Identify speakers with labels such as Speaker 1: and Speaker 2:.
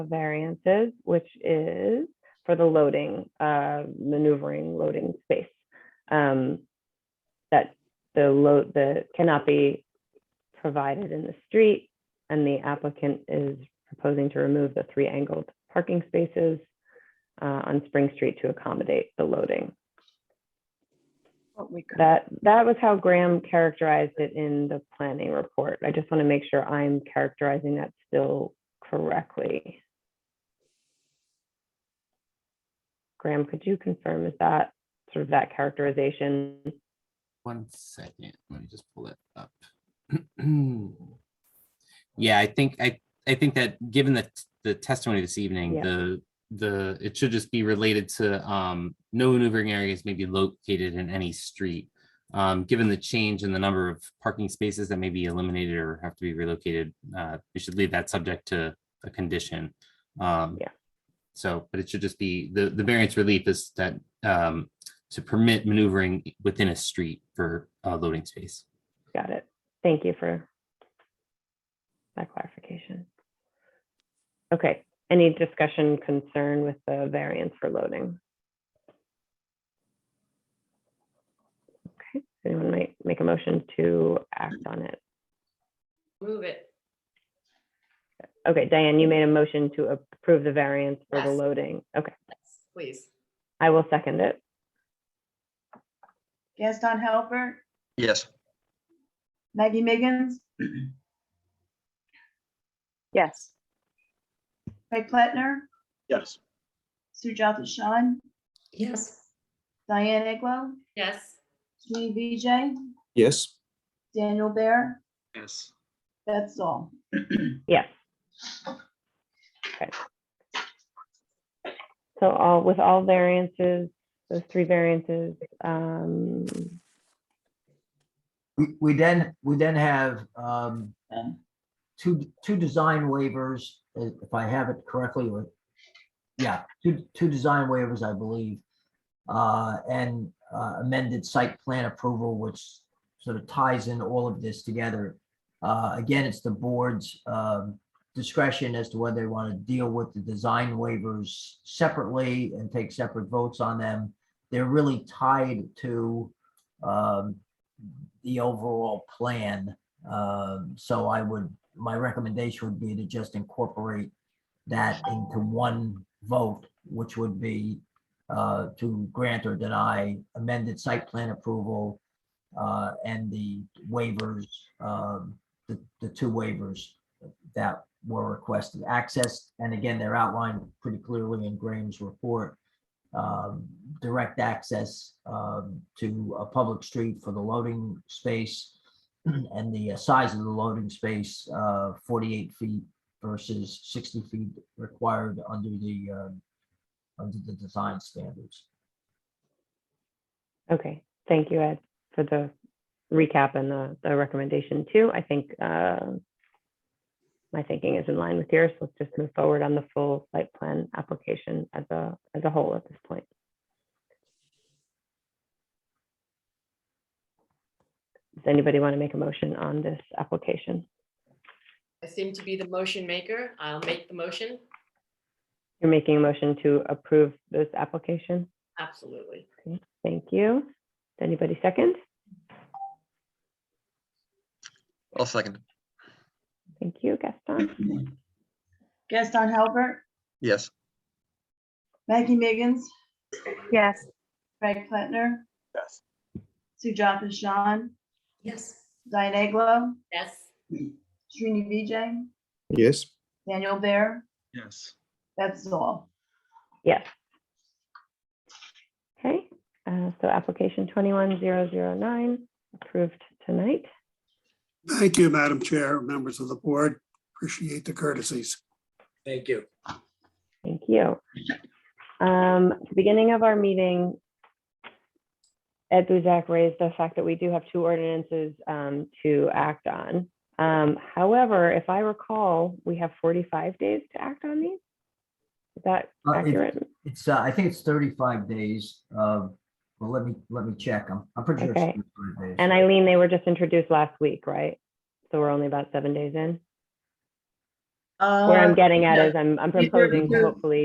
Speaker 1: variances, which is for the loading, uh, maneuvering loading space. Um, that the load, the cannot be provided in the street. And the applicant is proposing to remove the three angled parking spaces uh, on Spring Street to accommodate the loading.
Speaker 2: What we could,
Speaker 1: That, that was how Graham characterized it in the planning report. I just want to make sure I'm characterizing that still correctly. Graham, could you confirm is that sort of that characterization?
Speaker 3: One second, let me just pull it up. Yeah, I think, I, I think that given the, t- the testimony this evening,
Speaker 1: Yeah.
Speaker 3: the, the, it should just be related to, um, no maneuvering areas may be located in any street. Um, given the change in the number of parking spaces that may be eliminated or have to be relocated, uh, we should leave that subject to a condition. Um,
Speaker 1: Yeah.
Speaker 3: So, but it should just be, the, the variance relief is that, um, to permit maneuvering within a street for uh, loading space.
Speaker 1: Got it. Thank you for that clarification. Okay, any discussion concern with the variance for loading? Okay, anyone might make a motion to act on it.
Speaker 4: Move it.
Speaker 1: Okay, Diane, you made a motion to approve the variance for the
Speaker 4: Yes.
Speaker 1: loading. Okay,
Speaker 4: Please.
Speaker 1: I will second it.
Speaker 2: Gaston Halbert,
Speaker 5: Yes.
Speaker 2: Maggie Miggins. Yes. Craig Plattner,
Speaker 5: Yes.
Speaker 2: Sujata Shan,
Speaker 4: Yes.
Speaker 2: Diane Aglow,
Speaker 4: Yes.
Speaker 2: Srini Vijay,
Speaker 5: Yes.
Speaker 2: Daniel Bear,
Speaker 5: Yes.
Speaker 2: that's all.
Speaker 1: Yes. Okay. So all, with all variances, those three variances, um,
Speaker 6: We, we then, we then have, um, two, two design waivers, uh, if I have it correctly, or, yeah, two, two design waivers, I believe. Uh, and uh, amended site plan approval, which sort of ties in all of this together. Uh, again, it's the board's, um, discretion as to whether they want to deal with the design waivers separately and take separate votes on them. They're really tied to, um, the overall plan. Um, so I would, my recommendation would be to just incorporate that into one vote, which would be uh, to grant or deny amended site plan approval uh, and the waivers, um, the, the two waivers that were requested, access, and again, they're outlined pretty clearly in Graham's report um, direct access um, to a public street for the loading space and the uh, size of the loading space, uh, 48 feet versus 60 feet required under the, um, under the design standards.
Speaker 1: okay, thank you, Ed, for the recap and the, the recommendation too. I think, uh, my thinking is in line with yours. Let's just move forward on the full site plan application as a, as a whole at this point. Does anybody want to make a motion on this application?
Speaker 4: I seem to be the motion maker. I'll make the motion.
Speaker 1: You're making a motion to approve this application?
Speaker 4: Absolutely.
Speaker 1: Thank you. Does Anybody second?
Speaker 5: I'll second.
Speaker 1: Thank you, Gaston.
Speaker 2: Gaston Halbert,
Speaker 5: Yes.
Speaker 2: Maggie Miggins,
Speaker 7: Yes,
Speaker 2: Craig Plattner,
Speaker 5: Yes.
Speaker 2: Sujata Shan,
Speaker 4: Yes.
Speaker 2: Diane Aglow,
Speaker 4: Yes.
Speaker 2: Srini Vijay,
Speaker 8: Yes,
Speaker 2: Daniel Bear,
Speaker 5: Yes.
Speaker 2: that's all.
Speaker 1: Yes. Okay, uh, so application 21009 approved tonight.
Speaker 9: Thank you, Madam Chair, members of the board. Appreciate the courtesies.
Speaker 6: Thank you.
Speaker 1: Thank you. Um, at the Beginning of our meeting, Ed Buzak raised the fact that we do have two ordinances um, to act on. Um, However, if I recall, we have 45 days to act on these. Is that
Speaker 6: Uh, if-
Speaker 1: accurate?
Speaker 6: It's, uh, I think it's 35 days. uh, Well, let me, let me check. I'm, I'm pretty sure.
Speaker 1: Okay.
Speaker 6: it's 35 days.
Speaker 1: And Eileen, they were just introduced last week, right? So we're only about seven days in. Where I'm
Speaker 2: Uh,
Speaker 1: getting at
Speaker 2: yeah.
Speaker 1: is I'm, I'm
Speaker 2: These are
Speaker 1: proposing to
Speaker 2: because-
Speaker 1: hopefully